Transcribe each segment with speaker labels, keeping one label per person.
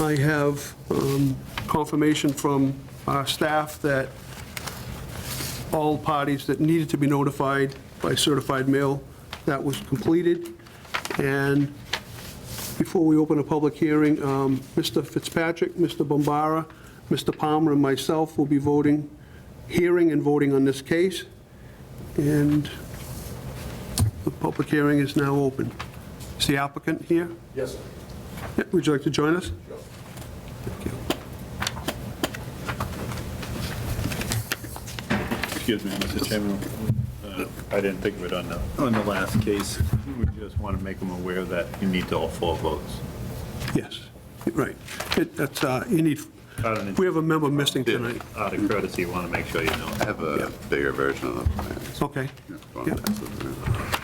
Speaker 1: I have um, confirmation from our staff that all parties that needed to be notified by certified mail, that was completed. And before we open a public hearing, um, Mr. Fitzpatrick, Mr. Bombara, Mr. Palmer, and myself will be voting, hearing and voting on this case. And the public hearing is now open. Is the applicant here?
Speaker 2: Yes, sir.
Speaker 1: Yeah, Would you like to join us?
Speaker 3: Excuse me, Mr. Chairman. Uh, I didn't think of it on the, on the last case. We just want to make them aware that you need all four votes.
Speaker 1: Yes, right. It- That's, uh, you need,
Speaker 3: Out of-
Speaker 1: we have a member missing tonight.
Speaker 3: Out of courtesy, you want to make sure you know.
Speaker 4: I have a bigger version of the plan. so
Speaker 1: Okay.
Speaker 4: it's going
Speaker 1: Yeah.
Speaker 4: faster than that.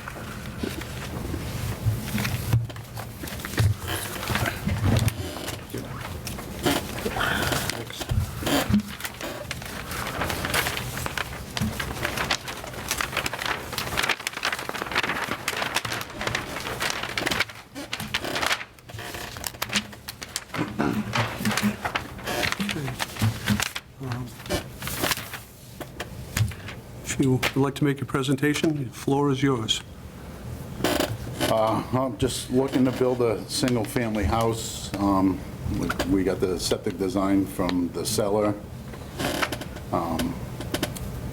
Speaker 1: If you would like to make your presentation, the floor is yours.
Speaker 5: I'm just looking to build a single-family house. Um, we- We got the septic design from the seller. Um,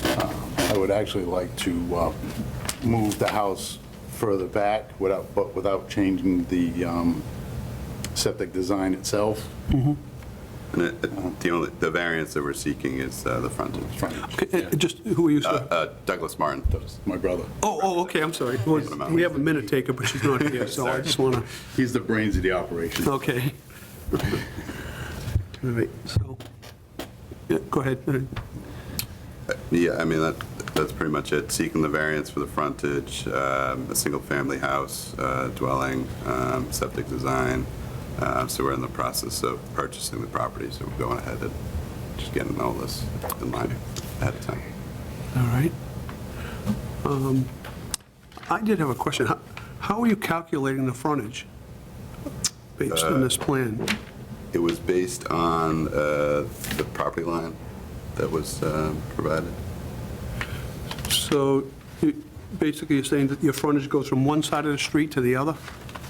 Speaker 5: uh, I would actually like to uh, move the house further back without, but without changing the um, septic design itself.
Speaker 4: And it- it- the only, the variance that we're seeking is uh, the frontage.
Speaker 1: Okay, uh, Just, who are you,
Speaker 4: Uh,
Speaker 1: sir?
Speaker 4: uh, Douglas Martin.
Speaker 5: My brother.
Speaker 1: Oh, oh, okay, I'm sorry. Well, We have a minute taker, but she's not here, so I just want to...
Speaker 5: He's the brains of the operation.
Speaker 1: Okay. All right, so, yeah, go ahead.
Speaker 4: Yeah, I mean, that, that's pretty much it. Seeking the variance for the frontage, um, a single-family house, uh, dwelling, um, septic design. Uh, So we're in the process of purchasing the property, so we're going ahead and just getting all this in line ahead of time.
Speaker 1: All right. Um, I did have a question. How- How are you calculating the frontage based on this plan?
Speaker 4: It was based on uh, the property line that was um, provided.
Speaker 1: So you- basically, you're saying that your frontage goes from one side of the street to the other?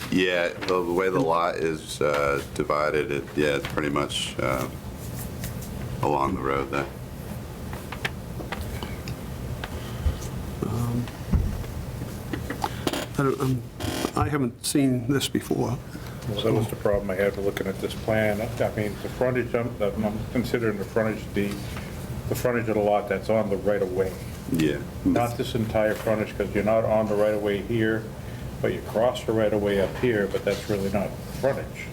Speaker 4: Yeah, the the way the lot is uh, divided, it, yeah, it's pretty much uh, along the road there.
Speaker 1: I don't- um, I haven't seen this before.
Speaker 6: Well, that was the problem I had with looking at this plan. I mean, the frontage, I'm I'm considering the frontage, the, the frontage of the lot that's on the right-of-way,
Speaker 4: Yeah.
Speaker 6: not this entire frontage, because you're not on the right-of-way here, but you cross the right-of-way up here, but that's really not frontage.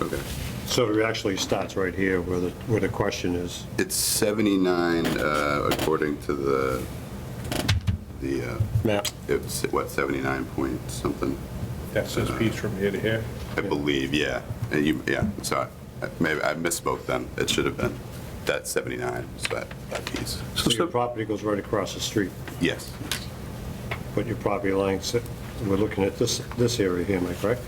Speaker 4: Okay.
Speaker 3: So it actually starts right here where the, where the question is.
Speaker 4: It's 79, uh, according to the, the, uh,
Speaker 3: Map.
Speaker 4: it's, what, 79 point something,
Speaker 6: That's this piece from here to here.
Speaker 4: I believe, yeah. And you, yeah, sorry, I- maybe I misspoke then, it should have been, that 79, is that, that piece.
Speaker 1: So
Speaker 3: So
Speaker 1: so-
Speaker 3: your property goes right across the street,
Speaker 4: Yes,
Speaker 3: but your property line, sit- we're looking at this, this area here, am I correct?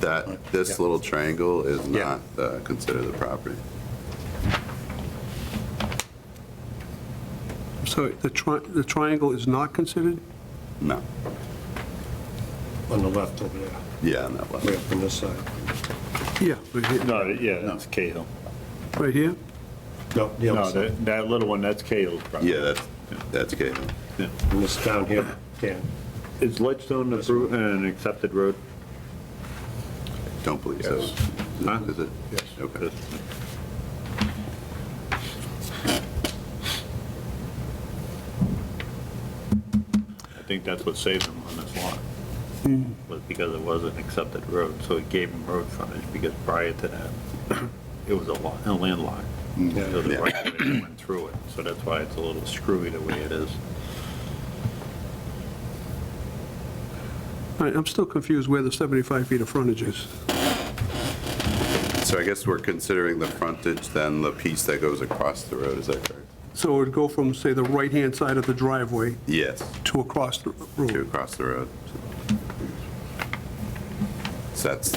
Speaker 4: that, this little triangle is
Speaker 3: Yeah.
Speaker 4: not uh, considered the property.
Speaker 1: so the tri- the triangle is not considered?
Speaker 4: No,
Speaker 3: On the left over there,
Speaker 4: yeah, on that
Speaker 3: way
Speaker 4: level.
Speaker 3: up on this side.
Speaker 1: Yeah, right here-
Speaker 2: No, yeah, that's Cahill.
Speaker 1: right here?
Speaker 3: No, the other
Speaker 2: No,
Speaker 3: side.
Speaker 2: that, that little one, that's Cahill's property.
Speaker 4: Yeah, that's, that's good.
Speaker 3: And this down here, Dan.
Speaker 2: Is Ledgestone approved and an accepted road?
Speaker 4: Don't believe so.
Speaker 2: Yes. Huh?
Speaker 4: Is it? Yes. Okay.
Speaker 2: I think that's what saved him on this lot, was because it was an accepted road, so it gave him road frontage, because prior to that, it was a lot, a landlocked. So the
Speaker 4: Yeah.
Speaker 2: right of way went through it, so that's why it's a little screwy the way it is.
Speaker 1: All right, I'm still confused where the 75 feet of frontage is.
Speaker 4: So I guess we're considering the frontage, then the piece that goes across the road, is that correct?
Speaker 1: So it would go from, say, the right-hand side of the driveway
Speaker 4: Yes,
Speaker 1: to across the
Speaker 4: to
Speaker 1: road?
Speaker 4: across the road. So that's